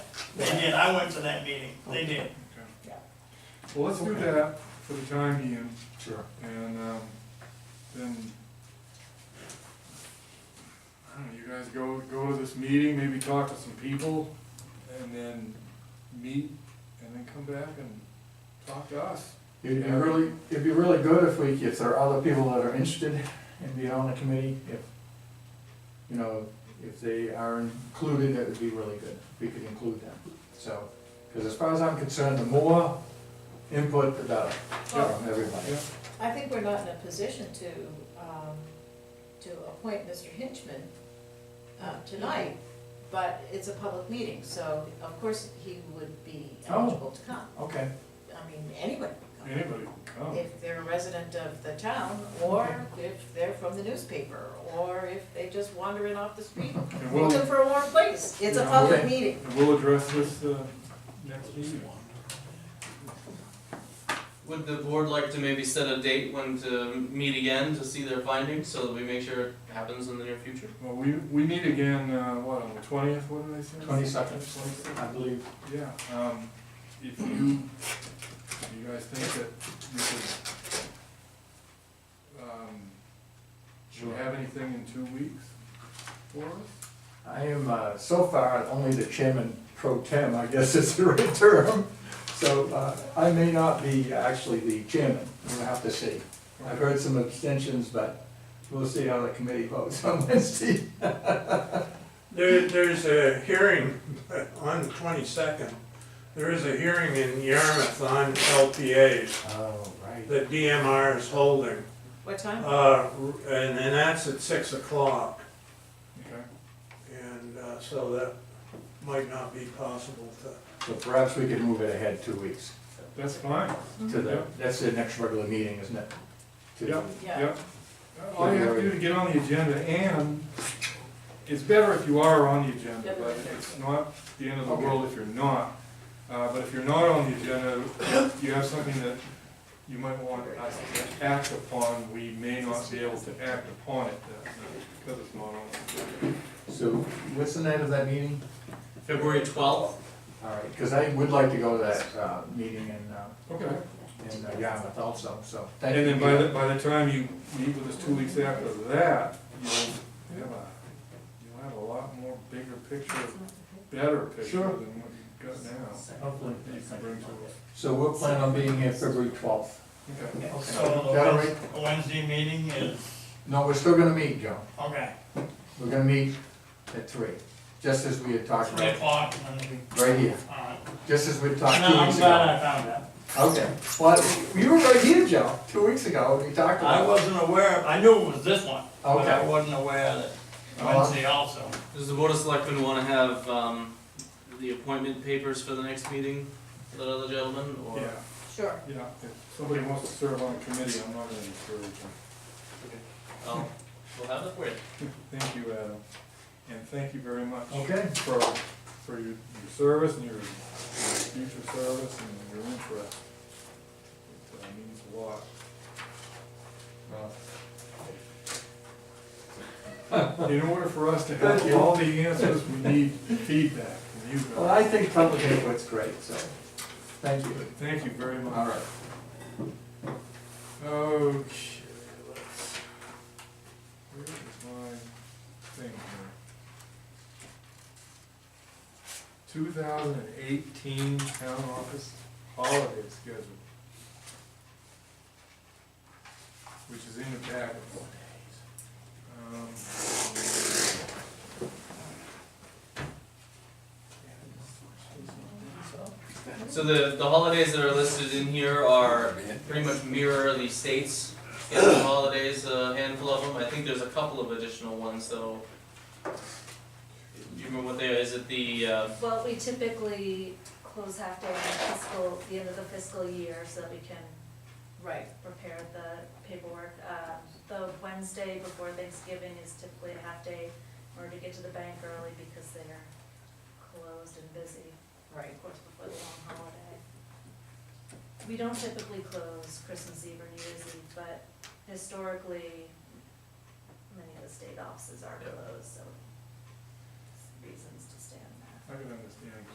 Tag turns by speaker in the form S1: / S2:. S1: They did, I went to that meeting, they did.
S2: Yeah.
S3: Well, let's do
S4: Okay.
S3: that for the time being,
S4: Sure.
S3: and, um, then, I don't know, you guys go, go to this meeting, maybe talk to some people, and then meet, and then come back and talk to us.
S4: It'd be really, it'd be really good if we, if there are other people that are interested in being on the committee, if, you know, if they are included, that would be really good, if we could include them, so. Because as far as I'm concerned, the more input, the better from everybody.
S3: Yeah.
S2: I think we're not in a position to, um, to appoint Mr. Hinchman, uh, tonight, but it's a public meeting, so of course he would be
S4: Oh.
S2: eligible to come.
S4: Okay,
S2: I mean, anyone can come,
S3: Anybody can come.
S2: if they're a resident of the town, or if they're from the newspaper, or if they just wander in off the street
S3: And we'll,
S2: looking for a warm place. It's a
S3: Yeah,
S2: public
S4: okay.
S2: meeting.
S3: and we'll address this, uh, next meeting.
S5: Would the board like to maybe set a date when to meet again to see their findings, so that we make sure it happens in the near future?
S3: Well, we, we meet again, uh, what, on the twentieth, what did I say?
S4: Twenty-second.
S3: Twenty-second.
S4: I believe,
S3: Yeah, um, if you, if you guys think that you could, um, do you
S4: Sure.
S3: have anything in two weeks for us?
S4: I am, uh, so far, only the chairman pro tem, I guess is the right term. So, uh, I may not be actually the chairman, we'll have to see. I've heard some abstentions, but we'll see how the committee votes on Wednesday.
S1: There, there's a hearing on the twenty-second, there is a hearing in Yarmouth on LPAs
S4: Oh, right.
S1: that DMR is holding.
S2: What time?
S1: Uh, and, and that's at six o'clock,
S3: Okay,
S1: and, uh, so that might not be possible to
S4: So perhaps we could move it ahead two weeks
S3: that's fine.
S4: to the, that's the next regular meeting, isn't it? To-
S3: Yep.
S2: Yeah,
S3: All you have to do to get on the agenda, and it's better if you are on the agenda, but it's not the end of the world if you're not. Uh, but if you're not on the agenda, you have something that you might want us to act upon, we may not be able to act upon it, uh, because it's not on.
S4: So what's the night of that meeting?
S5: February twelfth?
S4: All right, because I would like to go to that, uh, meeting in, uh,
S3: Okay.
S4: in uh, Yarmouth also, so. thank
S3: And then
S4: you.
S3: by the, by the time you meet with us two weeks after that, you'll have a, you'll have a lot more bigger picture, better picture
S4: Sure.
S3: than what you've got now.
S4: Hopefully.
S3: that You can bring to us.
S4: So we'll plan on being here February twelfth.
S3: Okay.
S1: So the
S4: Got it
S1: Wed- Wednesday meeting is,
S4: No, we're still gonna meet, Joe.
S1: okay,
S4: We're gonna meet at three, just as we had talked
S1: three
S4: about,
S1: o'clock, and we,
S4: right here,
S1: all right.
S4: just as we talked
S1: No,
S4: two
S1: Uh, I'm
S4: weeks
S1: glad
S4: ago.
S1: I found that.
S4: Okay, well, you were right here, Joe, two weeks ago, when we talked
S1: I
S4: about. it.
S1: wasn't aware, of- I knew it was this one, but I
S4: Okay. Uh-huh.
S1: wasn't aware that Wednesday also.
S5: Does the board of selectmen wanna have, um, the appointment papers for the next meeting, for that other gentleman, or?
S3: Yeah,
S2: sure.
S3: yeah, if somebody wants to serve on a committee, I'm not gonna discourage them.
S5: Oh, we'll have it for you.
S3: Thank you, Adam, and thank you very much.
S4: Okay.
S3: For, for your, your service and your, your future service and your interest. It uh, means a lot.
S4: Well,
S3: In order for us to have all the answers, we need feedback from you
S4: Well,
S3: guys.
S4: I think public input's great, so, thank you.
S3: Thank you very
S4: All
S3: much.
S4: right.
S3: Okay, let's, where is my thing here? Two thousand and eighteen town office holiday schedule. Which is in the packet. Um,
S5: So the, the holidays that are listed in here are pretty much mirror the states, and the holidays, a handful of them, I think there's a couple of additional ones, though. Do you remember what they, is it the, uh,
S6: Well, we typically close half day in fiscal, the end of the fiscal year, so that we can
S2: Right,
S6: prepare the paperwork. Uh, The Wednesday before Thanksgiving is typically a half day, in order to get to the bank early because they're closed and busy,
S2: right.
S6: of course, before the long holiday. We don't typically close Christmas Eve or New Year's Eve, but historically, many of the state offices are
S5: Yeah.
S6: closed, so reasons to stay on that.
S3: I can understand